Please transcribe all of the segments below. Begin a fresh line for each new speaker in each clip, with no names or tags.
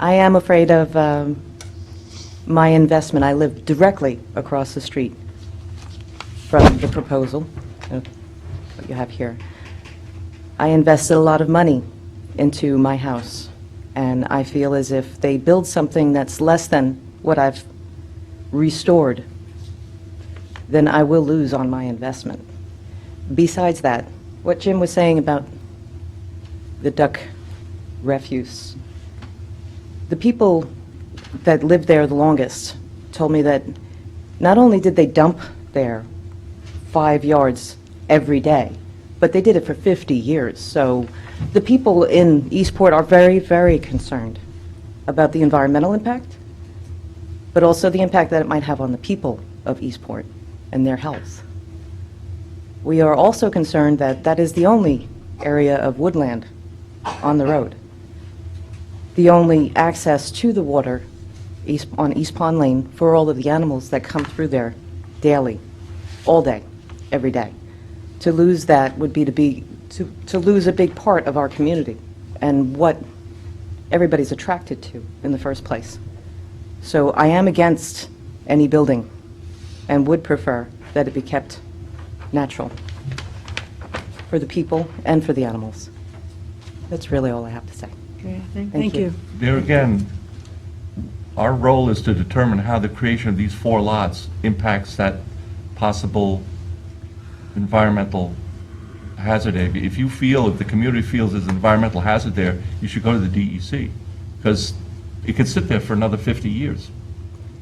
I am afraid of um, my investment. I live directly across the street from the proposal, uh, what you have here. I invested a lot of money into my house, and I feel as if they build something that's less than what I've restored, then I will lose on my investment. Besides that, what Jim was saying about the duck refuse, the people that lived there the longest told me that not only did they dump there five yards every day, but they did it for 50 years. So the people in Eastport are very, very concerned about the environmental impact, but also the impact that it might have on the people of Eastport and their health. We are also concerned that that is the only area of woodland on the road. The only access to the water east- on East Pond Lane for all of the animals that come through there daily, all day, every day. To lose that would be to be, to to lose a big part of our community and what everybody's attracted to in the first place. So I am against any building and would prefer that it be kept natural for the people and for the animals. That's really all I have to say.
Okay,
Thank
thank- Thank
you.
you.
There again, our role is to determine how the creation of these four lots impacts that possible environmental hazard area. If you feel, if the community feels there's an environmental hazard there, you should go to the DEC, because it could sit there for another 50 years.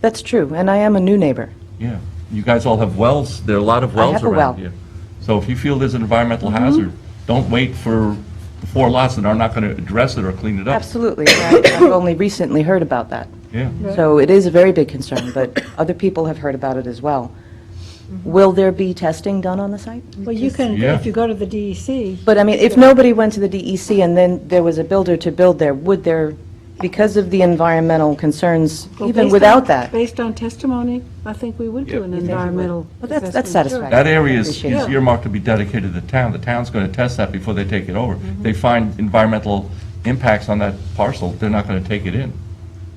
That's true, and I am a new neighbor.
Yeah. You guys all have wells, there are a lot of wells
have a well. Mm-hmm.
around here. So if you feel there's an environmental hazard, don't wait for the four lots that are not going to address it or clean it up.
Absolutely. I- I've only recently heard about that.
Yeah.
So it is a very big concern, but other people have heard about it as well.
Mm-hmm.
Will there be testing done on the site?
Well, you can,
Yeah.
if you go to the DEC,
But I mean, if nobody went to the DEC and then there was a builder to build there, would there, because of the environmental concerns,
well, based
even
on-
without that?
Based on testimony, I think we would do an environmental
Well, that's-
assessment.
that's
sure.
satisfactory.
That area is
Appreciate
is
it.
earmarked to be dedicated to the town. The town's going to test that before they take it over. They find environmental impacts on that parcel, they're not going to take it in.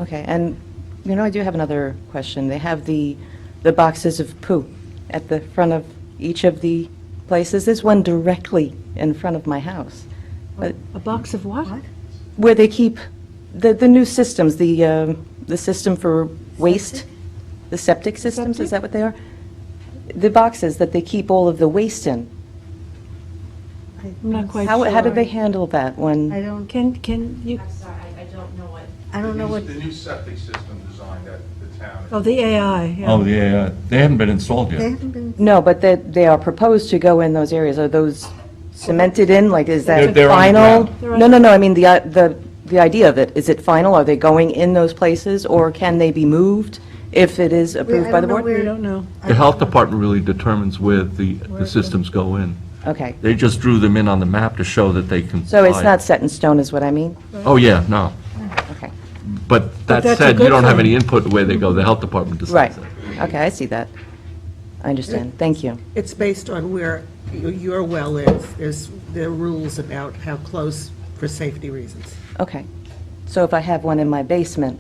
Okay, and, you know, I do have another question. They have the, the boxes of poo at the front of each of the places. There's one directly in front of my house, but
A box of what?
where they keep the, the new systems, the, um, the system for waste, the septic systems, is that what they are? The boxes that they keep all of the waste in.
I'm not quite
How,
sure.
how do they handle that when?
I don't,
Can, can you,
I'm sorry, I I don't know what.
I don't know what,
The new septic system design that the town.
oh, the AI, yeah.
Oh, yeah, yeah. they haven't been installed
they
yet.
haven't been,
No, but they, they are proposed to go in those areas. Are those cemented in? Like, is
They're-
that
they're
final?
underground.
They're
No, no, no, I mean, the, i- the, the idea of it, is it final? Are they going in those places, or can they be moved if it is approved
I
by the
don't know
board?
where-
We don't know.
The health department really determines where the, the systems go in.
Okay,
They just drew them in on the map to show that they can.
so it's not set in stone, is what I mean?
Oh, yeah, no.
Okay,
But
But
that
that's a
said, you
good
don't have
thing.
any input where they go. The health department
right,
decides that.
okay, I see that. I understand, thank you.
It's based on where y- your well is, there's, there are rules about how close for safety reasons.
Okay, so if I have one in my basement,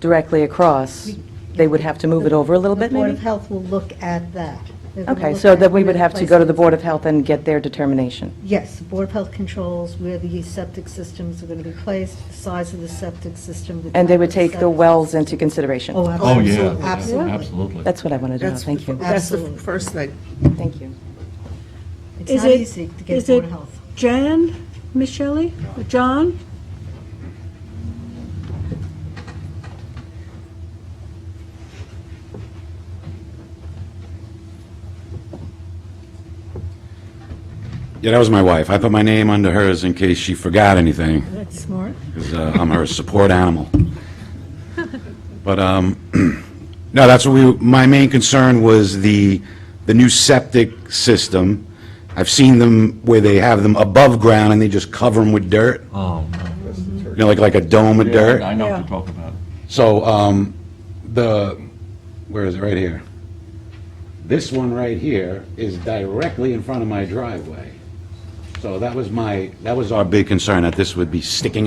directly across, they would have to move it over a little
the
bit,
Board of
maybe?
Health will look at that. They're gonna
Okay,
look
so
at
then we would
where
have to go to the
places-
Board of Health and get their determination.
Yes, the Board of Health controls where the septic systems are going to be placed, the size of the septic system. the
And they
type
would
of
take the
septic-
wells into consideration.
Oh,
Oh, yeah,
absolutely,
yeah,
absolutely.
absolutely.
That's what I wanted to know,
That's
thank you.
That's the
Absolutely.
first thing.
Thank you.
It's
Is
not
it-
easy to get
is
Board of
it-
Health.
Jan, Michele, John?
Yeah, that was my wife. I put my name under hers in case she forgot anything,
That's smart.
because I'm her support animal. But, um, no, that's what we, my main concern was the, the new septic system. I've seen them where they have them above ground and they just cover them with dirt,
Oh,
you know, like, like a dome of
no.
dirt.
I know what you're talking about.
So, um, the, where is it, right here? This one right here is directly in front of my driveway. So that was my, that was our big concern, that this would be sticking